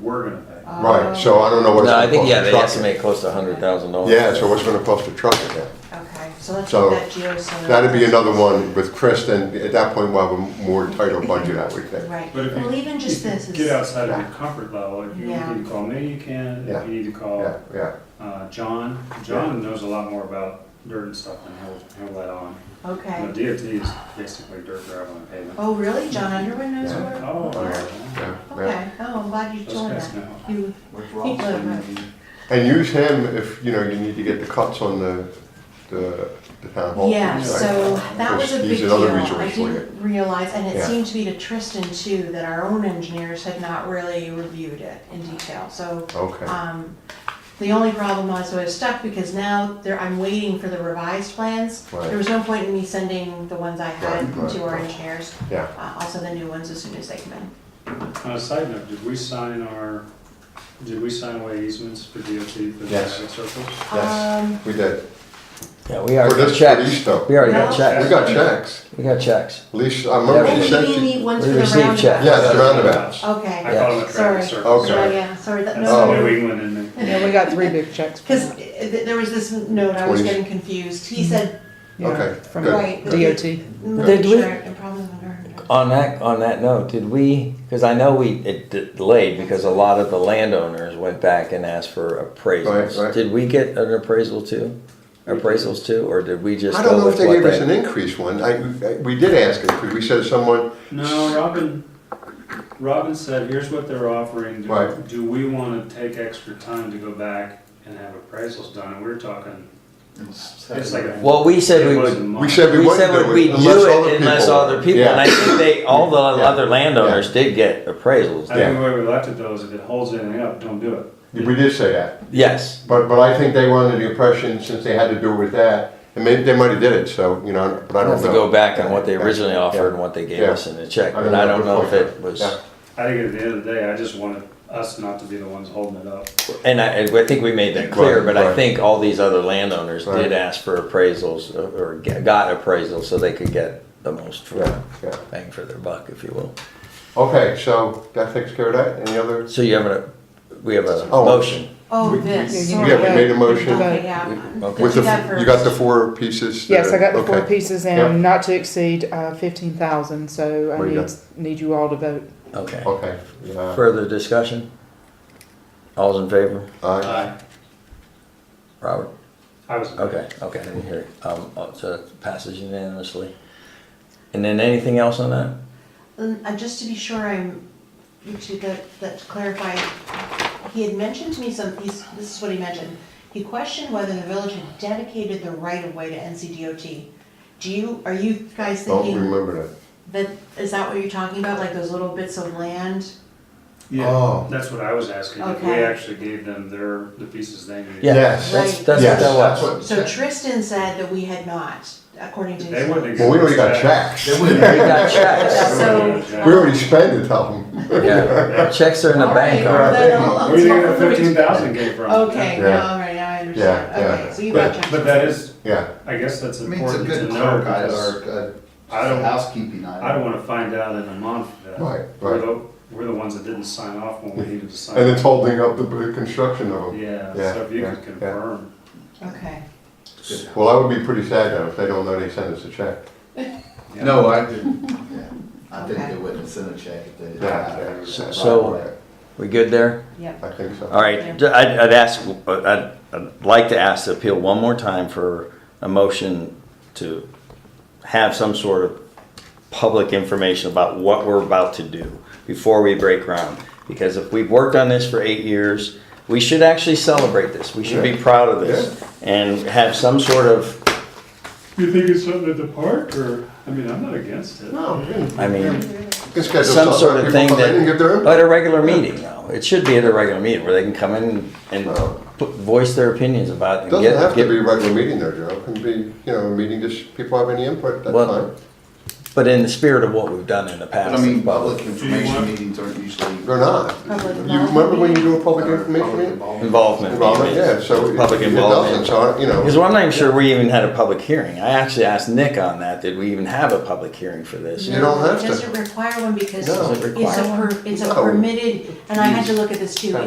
we're gonna pay. Uh, Right, so I don't know what it's No, I gonna think, cost yeah, to they truck it. estimate close to a hundred thousand dollars. Yeah, so what's it gonna cost to truck it then? Okay, so let's So, get that geo center. That'd be another one with Chris, then at that point we'll have a more tighter budget, I would think. Right, But if well, you- even just this is. Get outside of your comfort level, if you Yeah. need to call me, you can, Yeah. if you need to call Yeah, yeah, uh, John, John knows a lot more about dirt and stuff than he'll, he'll let on. You know, Okay. DOT is basically dirt, gravel, and pavement. Oh, really? John Underwood knows Yeah. where? Oh, yeah, yeah. yeah, yeah. Okay, oh, I'm glad you Those told guys that. know. You, With Keep going, Ralston, right. And use him if, you know, you need to get the cuts on the, the the town hall. yeah, right? so that was a Because big he's deal. another I resource for you. didn't realize, and it Yeah. seemed to be to Tristan too, that our own engineers had not really reviewed it in detail, so. Okay, Um, the only problem was I was stuck because now there, I'm waiting for the revised plans. Right. There was no point in me sending the ones I had Right, right, to our right. engineers. yeah. Uh, also the new ones as soon as they come in. On a side note, did we sign our, did we sign away easements for DOT for the Yes. traffic circles? Yes. Um, We did. Yeah, we For already this, got for these checks. though. We We already got No. checks. got checks. We got checks. Lisa, I remember Yeah, she and said we she, need ones we for the received roundabouts. checks. yes, the roundabouts. Oh. I Okay, Yeah. call them the Sorry. traffic circles. Okay. so yeah, Oh, sorry, that, That's the Oh. New no, England in there. Yeah, we got three big checks. because there was this note, I was Twenty. getting confused. He said, Yeah, Okay, From good. right. DOT. Did we- And problems under. On that, on that note, did we, because I know we, it d- delayed because a lot of the landowners went back and asked for Right, appraisals. right. Did we get an appraisal too? Appraisals too, or did we just I don't go know if with they what gave us an they? increase one. I, I- we did ask it, because we said someone, No, Robin, Robin said, here's what they're offering. Do- Right. Do we want to take extra time to go back and have appraisals done? And we we're talking, it's like. a- Well, we said we It would, wasn't much. we said we We said wouldn't do it. what we'd unless do other it unless people- other people, Yeah. and I think they, all the Yeah. other landowners did get appraisals. I think the way we left it though is if it holds anything up, don't do it. We did say that, Yes, but, but I think they were under the impression, since they had to do it with that, and maybe, they might have did it, so, you know, but I I don't know. have to go back on what they originally Yeah. offered and what they gave Yeah. us in the check, I don't but know. I don't know if Good it was, Yeah. I think at the end of the day, I just wanted us not to be the ones holding it up. and I, and I think we made that clear, Right, but I right. think all these other landowners Right. did ask for appraisals uh, or g- got appraisals so they could get the most Yeah, for yeah. bang for their buck, if you will. Okay, so that takes care of that, any other? So you have a, we have a Oh. motion. Oh, We- this, we- sorry. Yeah, we made a motion. Okay, yeah. Okay. With the, Do that you got the first. four pieces? Yes, I there? got the four Okay. pieces Yeah. and not to exceed uh, fifteen thousand, so I There you need, need you all to vote. Okay. Okay, yeah, Further discussion? All's in favor? aye, I Robert? I was. Okay, okay, I didn't hear it. Um, uh, so it passes unanimously. And then anything else on that? Um, uh, just to be sure I'm, to that, that to clarify, he had mentioned to me some, he's, this is what he mentioned. He questioned whether the village had dedicated the right of way to NCDOT. Do you, are you guys don't thinking remember that. that, is that what you're talking about, like those little bits of land? Yeah, Oh. that's what I was asking. If we Okay. actually gave them their, the pieces they needed. Yeah, Yes. That's, Right. that's Yes, what that that's was. what- So Tristan said that we had not, according to his. They wouldn't. Well, we already got accept checks. They wouldn't- We got checks. So- We already spent it, tell them. Yeah, checks are in the All bank. right, aren't right. they? then I'll- I'll Where do you think talk the to Rich. fifteen thousand came from? Okay, no, Yeah. all right, now I understand, Yeah, yeah. okay, so you got But- checked. But that is, Yeah, I guess that's I mean, it's a important to good know clerk item because or a- I don't- a housekeeping I item. don't wanna find out in a month that Right, we're right. the, we're the ones that didn't sign off when we needed to sign. and it's off. holding up the the construction of them. Yeah, Yeah, so if you yeah, could yeah. confirm. Okay. Good. Well, I would be pretty sad though, if they don't know they sent us a check. Yeah. No, I didn't, yeah, I think Okay. they wouldn't send a check if they didn't Yeah, have it. yeah. So- Right, so- right. We good there? Yep. I think so. All right, d- I'd, I'd ask, I'd, I'd like to ask the appeal one more time for a motion to have some sort of public information about what we're about to do before we break ground. Because if we've worked on this for eight years, we should actually celebrate this. We should be Yeah. proud of this and have some sort of, You think it's something at the park or, I mean, I'm not against it. No, we didn't- I we mean, can schedule some something. sort of People thing come in and give their that, input. at a regular meeting though. It should be at a regular meeting where they can come in and Well- put, voice their opinions about it. and Doesn't get- have get- to be a regular meeting though, Joe, it can be, you know, a meeting just, people have any input, that's Well, fine. But in the spirit of what we've done in the past. But I mean, it's public. public information meetings aren't usually. They're not. Public You remember when you do a public information Public meeting? involvement. Involvement. Involvement, yeah, so it Public it doesn't, involvement. so, you know. Because I'm not even sure we even had a public hearing. I actually asked Nick on that. Did we even have a public hearing for this? You don't have to. It doesn't require one because No. Oh. it's Doesn't require a, per- it's a No. permitted, and I had to look at this too,